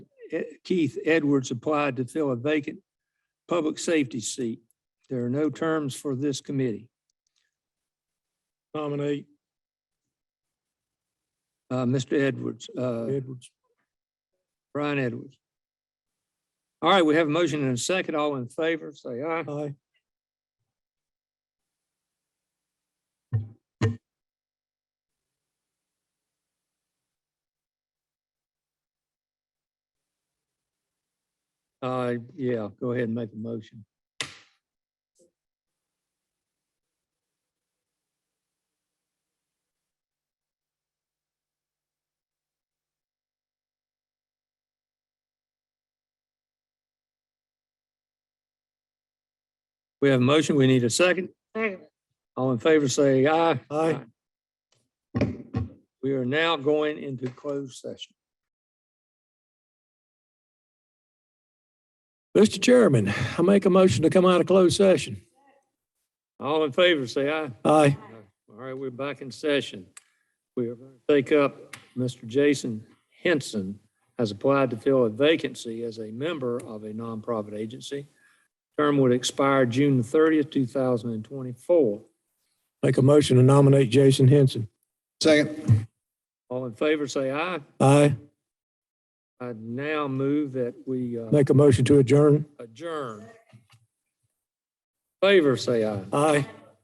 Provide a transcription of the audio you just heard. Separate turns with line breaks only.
E- Keith Edwards applied to fill a vacant public safety seat. There are no terms for this committee.
Nominate
Uh, Mr. Edwards, uh,
Edwards.
Brian Edwards. All right, we have a motion and a second. All in favor, say aye.
Aye.
Uh, yeah, go ahead and make a motion. We have a motion. We need a second.
Second.
All in favor, say aye.
Aye.
We are now going into closed session.
Mr. Chairman, I make a motion to come out of closed session.
All in favor, say aye.
Aye.
All right, we're back in session. We are going to take up Mr. Jason Henson has applied to fill a vacancy as a member of a nonprofit agency. Term would expire June thirtieth, two thousand and twenty-four.
Make a motion to nominate Jason Henson.
Second.
All in favor, say aye.
Aye.
I now move that we uh,
Make a motion to adjourn.
adjourn. Favor, say aye.
Aye.